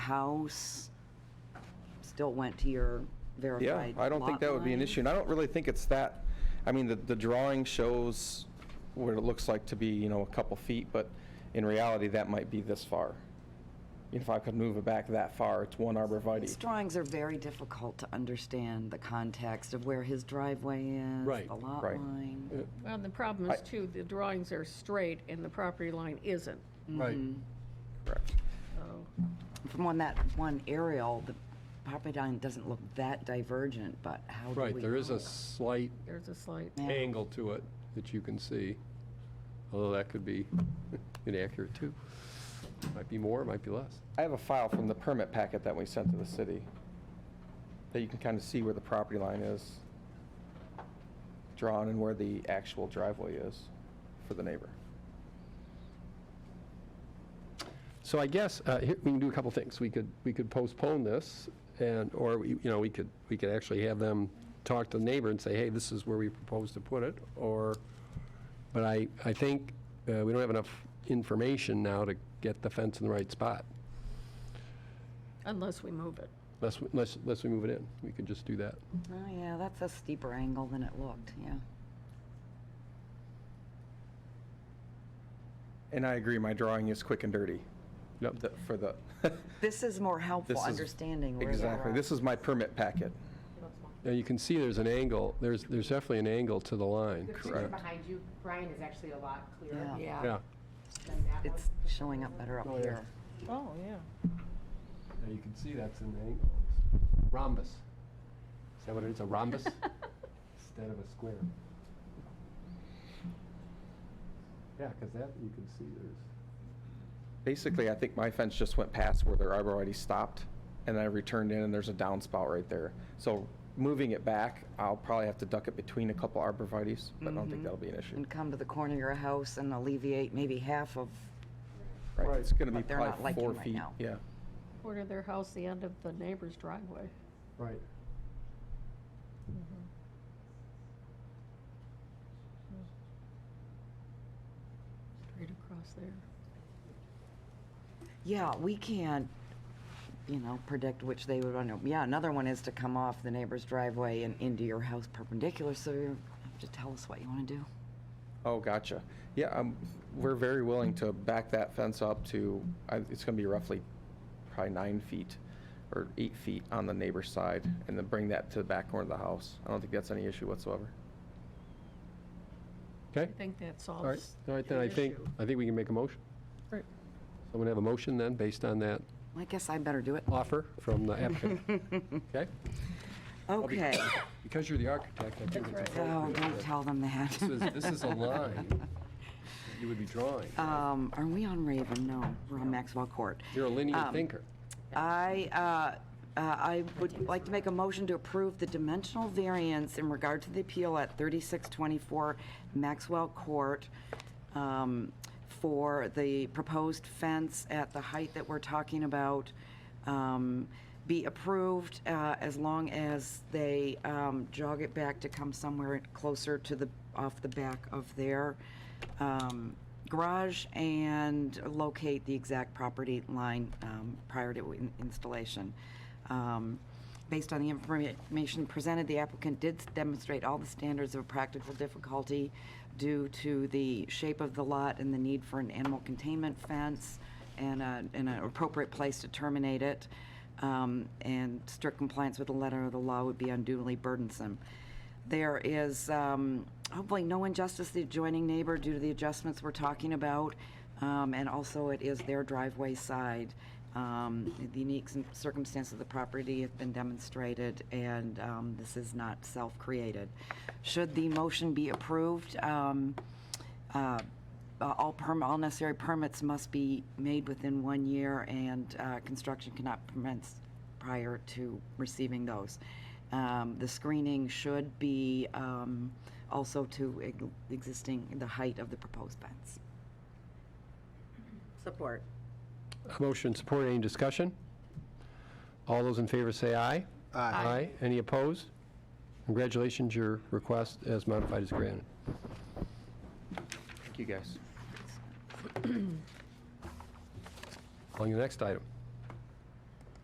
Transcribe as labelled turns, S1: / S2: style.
S1: house still went to your
S2: Yeah,
S1: verified
S2: I don't think
S1: lot
S2: that would be an
S1: line?
S2: issue, and I don't really think it's that, I mean, the, the drawing shows what it looks like to be, you know, a couple feet, but in reality, that might be this far. If I could move it back that far, it's one
S1: These
S2: arborvitae.
S1: drawings are very difficult to understand the context of where his driveway is,
S3: Right.
S1: the lot
S2: Right.
S1: line.
S4: Well, and the problem
S2: I-
S4: is too, the drawings are straight and the property line isn't.
S3: Right.
S1: Mm-hmm.
S2: Correct.
S4: So,
S1: From on that one aerial, the property line doesn't look that divergent, but how do we?
S3: Right, there is
S1: know?
S3: a slight
S4: There's a slight,
S1: Yeah.
S3: angle to it that you can see, although that could be inaccurate too. Might be more, might be less.
S2: I have a file from the permit packet that we sent to the city, that you can kind of see where the property line is drawn and where the actual driveway is for the neighbor.
S3: So I guess, uh, here, we can do a couple things. We could, we could postpone this, and, or, we- you know, we could, we could actually have them talk to the neighbor and say, hey, this is where we propose to put it, or, but I, I think uh, we don't have enough information now to get the fence in the right spot,
S4: unless we move it.
S3: unless, we- unless, unless we move it in. We could just do that.
S1: Oh, yeah, that's a steeper angle than it looked, yeah.
S2: And I agree, my drawing is quick and dirty.
S3: Yep.
S2: The- For the,
S1: This is more helpful
S2: This is-
S1: understanding where they
S2: exactly,
S1: are.
S2: this is my permit packet.
S3: Now, you can see there's an angle, there's, there's definitely an angle to the line.
S5: The picture behind you, Brian, is actually a lot clearer
S1: Yeah.
S3: Yeah,
S5: than that one.
S1: It's showing up better up
S3: Oh, yeah.
S1: here.
S4: Oh, yeah.
S3: Now, you can see that's an angle. Rhombus. Is that what it is, a rhombus? Instead of a square. Yeah, because that, you can see there's,
S2: Basically, I think my fence just went past where their arborvitae stopped, and I returned in, and there's a downspout right there. So moving it back, I'll probably have to duck it between a couple arborvitae's, but I don't think that'll be an issue.
S1: Mm-hmm. And come to the corner of your house and alleviate maybe half of,
S2: Right, it's gonna be
S1: But they're not
S2: probably
S1: liking
S2: four
S1: right
S2: feet,
S1: now.
S2: yeah.
S4: Corner of their house, the end of the neighbor's driveway.
S3: right.
S4: Straight across there.
S1: yeah, we can't, you know, predict which they would want to. Yeah, another one is to come off the neighbor's driveway and into your house perpendicular, so you have to tell us what you want to do.
S2: Oh, gotcha. Yeah, um, we're very willing to back that fence up to, I- it's gonna be roughly probably nine feet or eight feet on the neighbor's side, and then bring that to the back corner of the house. I don't think that's any issue whatsoever.
S4: I
S3: Okay,
S4: think that
S3: all right,
S4: solves
S3: all right, then
S4: the
S3: I think,
S4: issue.
S3: I think we can make a motion.
S4: Right.
S3: Someone have a motion then, based on that
S1: I guess I better do it.
S3: offer from the applicant? Okay?
S1: Okay.
S3: Because you're the architect, I think it's
S1: Oh,
S3: appropriate.
S1: don't
S3: that
S1: tell them that.
S3: This is, this is a line that you would be drawing.
S1: Um, are we on Raven? No, we're on Maxwell Court.
S3: You're a linear thinker.
S1: I, uh, uh, I would like to make a motion to approve the dimensional variance in regard to the appeal at 3624 Maxwell Court um, for the proposed fence at the height that we're talking about um, be approved uh, as long as they um, jog it back to come somewhere closer to the, off the back of their um, garage and locate the exact property line um, prior to in- installation. Um, Based on the information presented, the applicant did demonstrate all the standards of practical difficulty due to the shape of the lot and the need for an animal containment fence and a- and an appropriate place to terminate it. Um, And strict compliance with the letter of the law would be unduly burdensome. There is um, hopefully no injustice to the adjoining neighbor due to the adjustments we're talking about, um, and also it is their driveway side. Um, The unique cir- circumstance of the property has been demonstrated, and um, this is not self-created. Should the motion be approved, um, uh, uh, all perm, all necessary permits must be made within one year, and uh, construction cannot commence prior to receiving those. Um, The screening should be um, also to ex- existing, the height of the proposed fence. Support.
S3: Motion support, any discussion? All those in favor say aye. Aye. Aye. Any opposed? Congratulations, your request as modified is granted.
S2: Thank you, guys.
S3: On your next item.